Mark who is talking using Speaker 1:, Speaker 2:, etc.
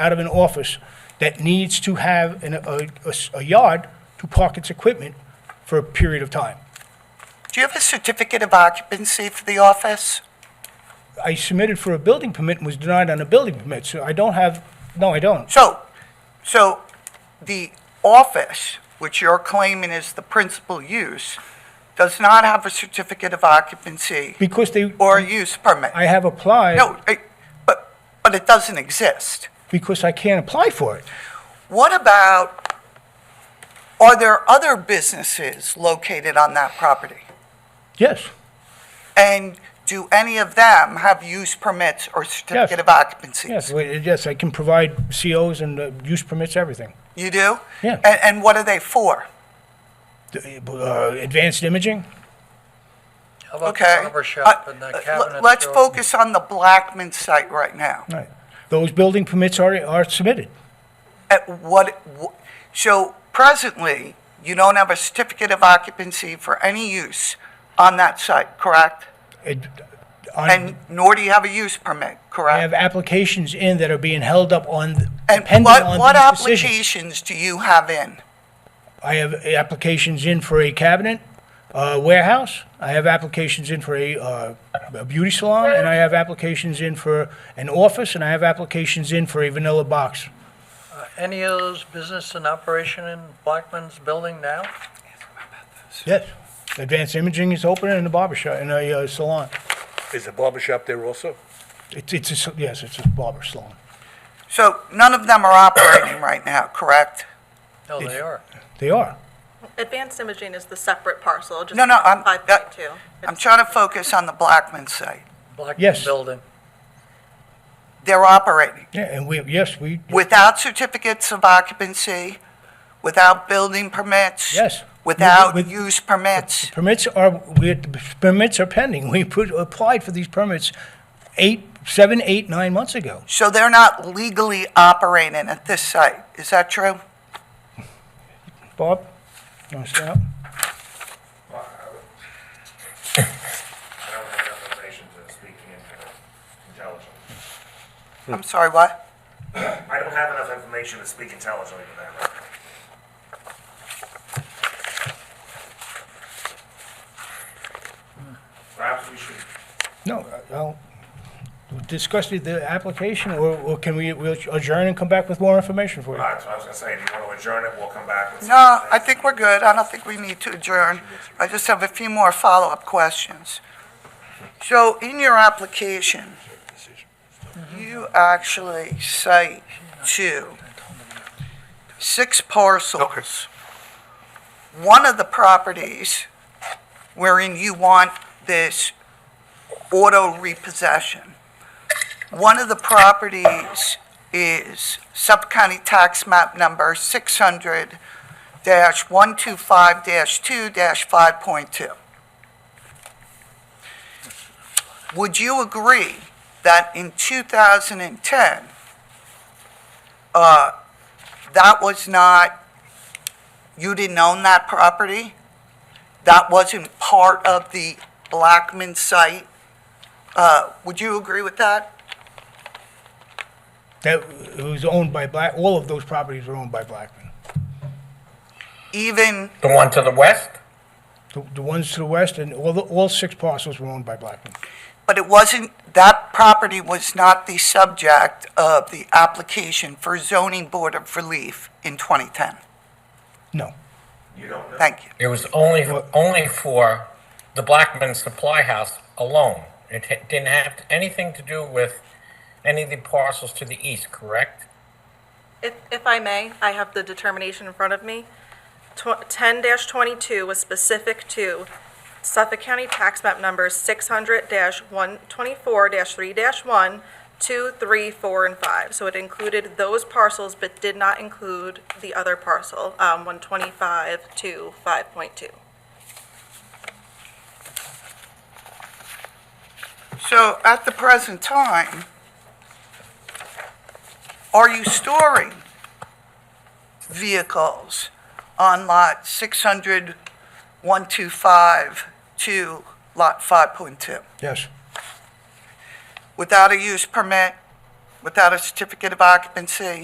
Speaker 1: out of an office that needs to have an, a, a s- a yard to park its equipment for a period of time.
Speaker 2: Do you have a certificate of occupancy for the office?
Speaker 1: I submitted for a building permit and was denied on a building permit, so I don't have, no, I don't.
Speaker 2: So, so the office, which you're claiming is the principal use, does not have a certificate of occupancy
Speaker 1: Because they,
Speaker 2: or a use permit?
Speaker 1: I have applied
Speaker 2: No, I- but, but it doesn't exist.
Speaker 1: because I can't apply for it.
Speaker 2: What about, are there other businesses located on that property?
Speaker 1: Yes,
Speaker 2: And do any of them have use permits or certificate of occupancy?
Speaker 1: yes, well, yes, I can provide COs and uh, use permits, everything.
Speaker 2: You do?
Speaker 1: Yeah.
Speaker 2: And, and what are they for?
Speaker 1: Uh, Advanced imaging?
Speaker 3: How about the
Speaker 2: Okay.
Speaker 3: barber shop
Speaker 2: Uh,
Speaker 3: and the
Speaker 2: uh,
Speaker 3: cabinet store?
Speaker 2: Let's focus on the Blackman site right now.
Speaker 1: Right. Those building permits are, are submitted.
Speaker 2: At what, wh- so presently, you don't have a certificate of occupancy for any use on that site, correct?
Speaker 1: It-
Speaker 2: And
Speaker 1: on-
Speaker 2: nor do you have a use permit,
Speaker 1: I have
Speaker 2: correct?
Speaker 1: applications in that are being held up on,
Speaker 2: And
Speaker 1: depending
Speaker 2: what, what
Speaker 1: on these decisions.
Speaker 2: applications do you have in?
Speaker 1: I have applications in for a cabinet, uh, warehouse, I have applications in for a, uh, a beauty salon, and I have applications in for an office, and I have applications in for a vanilla box.
Speaker 3: Are Any of those business in operation in Blackman's building now?
Speaker 1: Yes. Advanced imaging is open in a barber shop, in a uh, salon.
Speaker 4: Is the barber shop there also?
Speaker 1: It's, it's, a s- yes, it's a barber salon.
Speaker 2: So none of them are operating right now, correct?
Speaker 3: No, they are.
Speaker 1: They are.
Speaker 5: Advanced imaging is the separate parcel, just
Speaker 2: No, no, I'm-
Speaker 5: five point two.
Speaker 2: I'm trying to focus on the Blackman site.
Speaker 3: Blackman
Speaker 1: Yes.
Speaker 3: building.
Speaker 2: They're operating
Speaker 1: Yeah, and we, yes, we,
Speaker 2: without certificates of occupancy, without building permits?
Speaker 1: yes.
Speaker 2: Without
Speaker 1: With-
Speaker 2: use permits?
Speaker 1: Permits are, we, permits are pending. We put, applied for these permits eight, seven, eight, nine months ago.
Speaker 2: So they're not legally operating at this site, is that true?
Speaker 1: Bob, you want to stand up?
Speaker 6: I don't have enough information to speak in- intelligently.
Speaker 1: Hmm.
Speaker 2: I'm sorry, what?
Speaker 6: I don't have enough information to speak intelligently to that right now. Perhaps we should,
Speaker 1: No, I'll discuss the- the application, or, or can we we'll adjourn and come back with more information for you?
Speaker 6: that's what I was gonna say, do you wanna adjourn it, we'll come back with.
Speaker 2: No, I think we're good, I don't think we need to adjourn. I just have a few more follow-up questions. So in your application, you actually cite two, six parcels. One of the properties wherein you want this auto repossession. One of the properties is Suffolk County Tax Map Number 600-125-2-5.2. Would you agree that in 2010, uh, that was not, you didn't own that property? That wasn't part of the Blackman site? Uh, Would you agree with that?
Speaker 1: That it was owned by Black, all of those properties were owned by Blackman.
Speaker 2: even,
Speaker 7: The one to the west?
Speaker 1: The, the ones to the west and all, the- all six parcels were owned by Blackman.
Speaker 2: but it wasn't, that property was not the subject of the application for zoning board of relief in 2010.
Speaker 1: No,
Speaker 6: You don't know.
Speaker 2: Thank you.
Speaker 7: It was only, only for the Blackman Supply House alone. It ha- didn't have anything to do with any of the parcels to the east, correct?
Speaker 5: If, if I may, I have the determination in front of me. Ten twenty-two was specific to Suffolk County Tax Map Numbers six hundred one twenty-four three one, two, three, four, and five. So it included those parcels, but did not include the other parcel, um, one twenty-five to five point two.
Speaker 2: So at the present time, are you storing vehicles on lot 600, 125 to lot 5.2
Speaker 1: yes,
Speaker 2: without a use permit, without a certificate of occupancy